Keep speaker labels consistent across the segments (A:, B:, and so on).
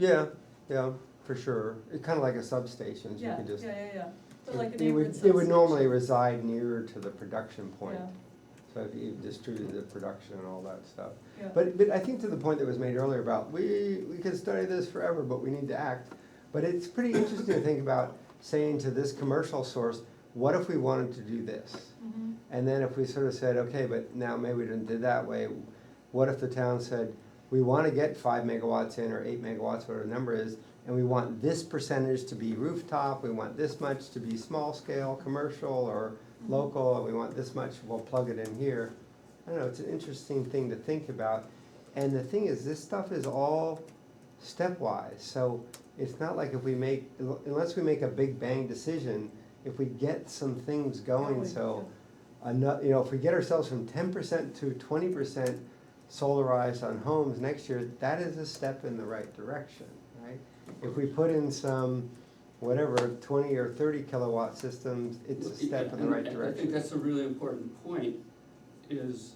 A: Yeah, yeah, for sure. It's kind of like a substation, so you
B: Yeah,
A: can
B: yeah,
A: just.
B: yeah, yeah. So
A: it-
B: like
A: it
B: a
A: would- It
B: neighborhood
A: would
B: substation.
A: normally reside nearer to the production point,
B: Yeah,
A: so if you distributed the production and all that stuff.
B: yeah.
A: But, but I think to the point that was made earlier about, we, we could study this forever, but we need to act. But it's pretty interesting to think about saying to this commercial source, what if we wanted to do this?
B: Mhm.
A: And then if we sort of said, okay, but now maybe we didn't do it that way, what if the town said, we want to get five megawatts in or eight megawatts, whatever the number is, and we want this percentage to be rooftop, we want this much to be small scale, commercial or
B: mm-hmm.
A: local, and we want this much, we'll plug it in here. I don't know, it's an interesting thing to think about. And the thing is, this stuff is all stepwise, so it's not like if we make, unless we make a big bang decision, if we get some things going,
B: Going,
A: so another, you know, if we get ourselves from ten percent to twenty percent solarized on homes next year, that is a step in the right direction, right? If we put in some, whatever, twenty or thirty kilowatt systems, it's a step in the
C: And
A: right
C: I think
A: direction.
C: that's a really important point, is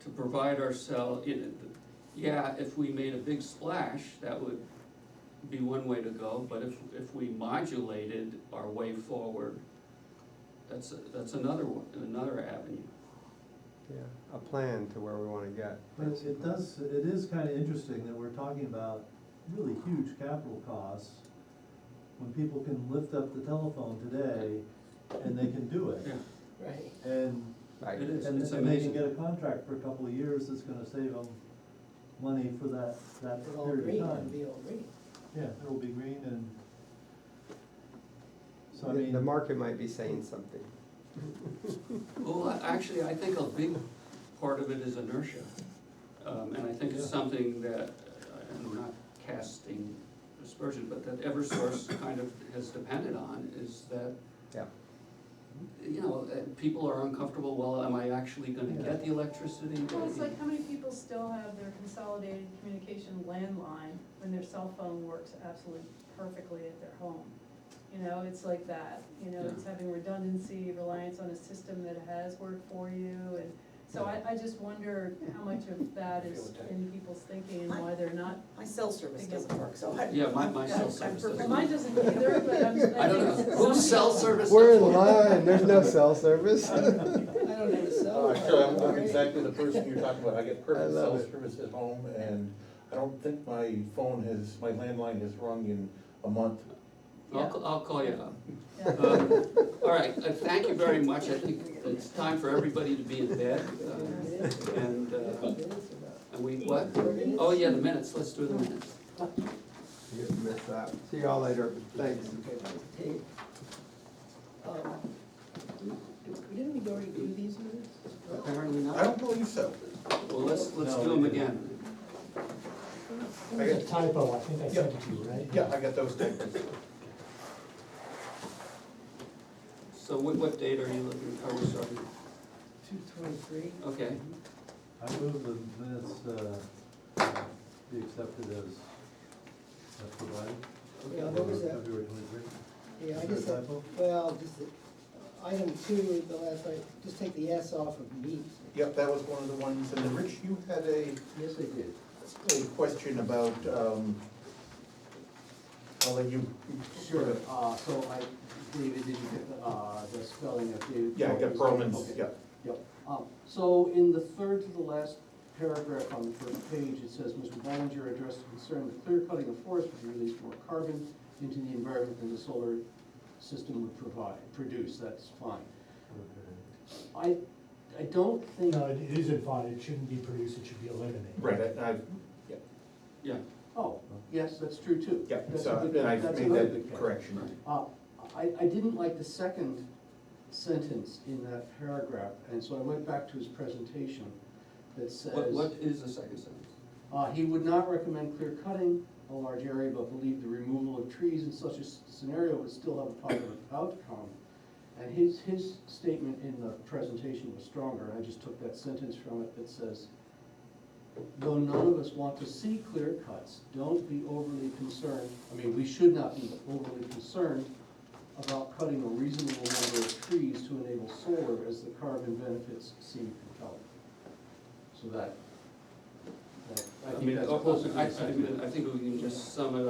C: to provide ourselves, yeah, if we made a big splash, that would be one way to go, but if, if we modulated our way forward, that's, that's another one, another avenue.
A: Yeah, a plan to where we wanna get.
D: But it- it does, it is kind of interesting that we're talking about really huge capital costs when people can lift up the telephone today and they can do it.
C: Yeah,
E: Right.
D: And,
A: Right.
C: It is.
D: and
C: It's
D: and they
C: amazing.
D: can get a contract for a couple of years that's gonna save them money for that, that
E: It'll all
D: period
E: green,
D: of
E: it'll
D: time.
E: be all green.
D: Yeah, it'll be green and, so I
A: The
D: mean.
A: the market might be saying something.
C: Well, I- actually, I think a big part of it is inertia. Um, and I think it's
D: Yeah.
C: something that, uh, I'm not casting aspersion, but that Eversource kind of has depended on, is that,
A: Yeah,
C: you know, uh, people are uncomfortable, well, am I actually gonna get the electricity?
B: Well, it's like how many people still have their consolidated communication landline when their cell phone works absolutely perfectly at their home? You know, it's like that, you know, it's having redundancy, reliance on a system that has worked for you and so I, I just wonder how much of that is in people's thinking and why they're not.
E: My cell service doesn't work, so I.
C: Yeah, my- my cell
E: I'm
C: service
E: perfect.
C: doesn't.
B: Mine doesn't either, but I'm, I think.
C: I don't know,
B: somebody-
C: who's cell service?
A: We're in
C: support?
A: line, there's no cell service.
E: I don't have a
F: Oh,
C: Uh,
E: cell.
F: sure, I'm, I'm
E: Right.
F: exactly the person you're talking about, I get perfect
A: love
F: cell
A: it.
F: service at home, and I don't think my phone has, my landline has rung in a month.
C: I'll, ca- I'll call you up.
B: Yeah.
C: Um, All right, uh, thank you very much, I think it's time for everybody to be in bed,
E: It
C: uh,
E: is.
C: and, uh,
E: It is about-
C: and we, what?
E: Four minutes?
C: Oh, yeah, the minutes, let's do the minutes.
A: You just missed that. See y'all later, thanks.
E: Okay, let's take, um, do- Didn't we already do these minutes?
C: Apparently
F: I
C: not.
F: don't believe so.
C: Well, let's, let's
D: No,
C: do
D: we
C: them
D: didn't.
C: again.
G: There was a typo, I think I sent it to you, right?
F: Yeah, I got those papers.
C: So what, what date are you looking, are we starting?
E: Two twenty-three?
C: Okay,
D: I move the minutes, uh, be accepted as, as provided.
E: Yeah, what was that?
D: February twenty-three.
E: Yeah, I
D: Is
E: just
D: there a
E: said,
D: typo?
E: well, just, the- item two, the last, I, just take the S off of meat.
F: Yep, that was one of the ones, and then Rich, you had a,
E: Yes, I did.
F: a question about, um, I'll let you.
H: Sure, uh, so I, David, did you get, the, uh, the spelling of David?
F: Yeah, I got Perlman's,
H: Okay.
F: yeah.
H: Yep, um, so in the third to the last paragraph on the first page, it says, Mr. Ballinger addressed a concern that clear cutting of forest would release more carbon into the environment than the solar system would provide, produce, that's fine. I, I don't think,
G: No, it it isn't fine, it shouldn't be produced, it should be eliminated.
F: Right, I, I-
C: yeah,
H: oh, yes, that's true too.
F: yeah,
H: That's a
F: so
H: good-
F: and I
H: that's
F: made
H: another good
F: that
H: catch.
F: correction.
H: Uh, I, I didn't like the second sentence in that paragraph, and so I went back to his presentation that
C: what, what
H: says,
C: is the second sentence?
H: uh, he would not recommend clear cutting a large area, but believed the removal of trees in such a s- scenario would still have a positive outcome. And his, his statement in the presentation was stronger, and I just took that sentence from it that says, though none of us want to see clear cuts, don't be overly concerned, I mean, we should not be overly concerned about cutting a reasonable number of trees to enable solar as the carbon benefits seem compelling. So that, that-
C: I
H: I think
C: mean,
H: that's
C: oh,
H: closer to
C: I, I
H: the
C: I
H: sentiment.
C: think we can just sum it up.